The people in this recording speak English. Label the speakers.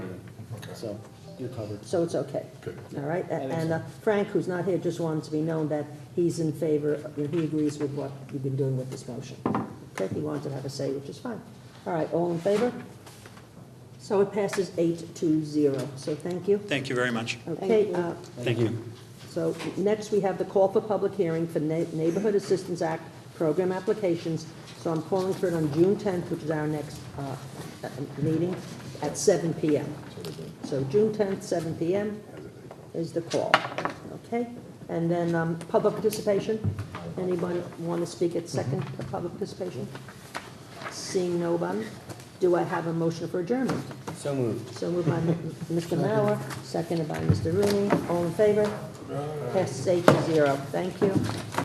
Speaker 1: so you're covered.
Speaker 2: So it's okay.
Speaker 3: Good.
Speaker 2: All right,
Speaker 1: I think
Speaker 2: and
Speaker 1: so.
Speaker 2: uh, Frank, who's not here, just wanted to be known that he's in favor, you know, he agrees with what you've been doing with this motion. Okay, he wanted to have a say, which is fine. All right, all in favor? So it passes eight to zero, so thank you.
Speaker 4: Thank you very much.
Speaker 2: Okay, uh,
Speaker 4: Thank you.
Speaker 2: so next we have the call for public hearing for Na- Neighborhood Assistance Act program applications. So I'm calling for it on June 10th, which is our next uh, uh, meeting, at 7 PM. So June 10th, 7 PM is the call, okay? And then um, public participation, anyone want to speak at second
Speaker 4: Mm-hmm.
Speaker 2: for public participation? Seeing no one, do I have a motion for adjournment?
Speaker 1: So moved.
Speaker 2: So moved by M- Mr. Mauer, seconded by Mr. Rooney. All in favor? Passes eight to zero. Thank you.